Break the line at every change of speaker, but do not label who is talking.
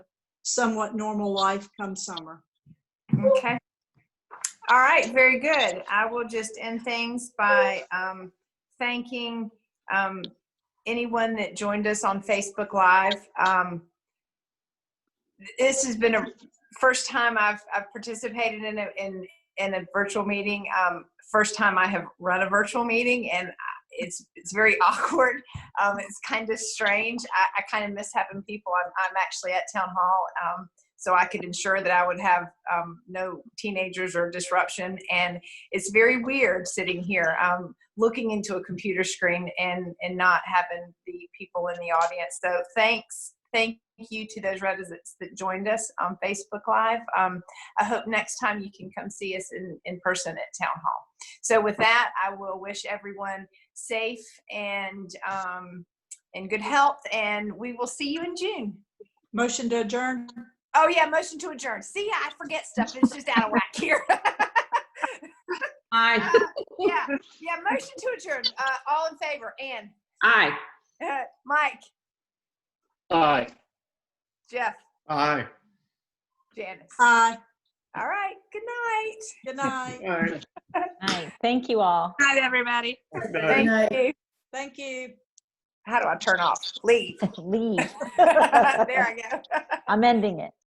somewhat normal life come summer.
Okay. All right, very good. I will just end things by um, thanking um, anyone that joined us on Facebook Live. Um, This has been a first time I've, I've participated in a, in, in a virtual meeting. Um, First time I have run a virtual meeting and I- it's, it's very awkward. Um, It's kind of strange. I, I kind of miss having people. I'm, I'm actually at town hall. um, so I could ensure that I would have um, no teenagers or disruption. And it's very weird sitting here, um, looking into a computer screen and and not having the people in the audience. So thanks, thank you to those residents that joined us on Facebook Live. Um, I hope next time you can come see us in in person at Town Hall. So with that, I will wish everyone safe and um, and good health, and we will see you in June.
Motion to adjourn?
Oh yeah, motion to adjourn. See, I forget stuff. It's just out of whack here.
Aye,
yeah, yeah, motion to adjourn. Uh, all in favor? Anne,
aye.
uh, Mike,
Aye.
Jeff,
Aye.
Janice.
Uh,
Aye.
All right. Good night.
Good night.
Aye.
Aye. Thank you all.
Good night, everybody.
Thank you.
Thank you.
How do I turn off? Leave.
Leave.
there I go.
I'm ending it.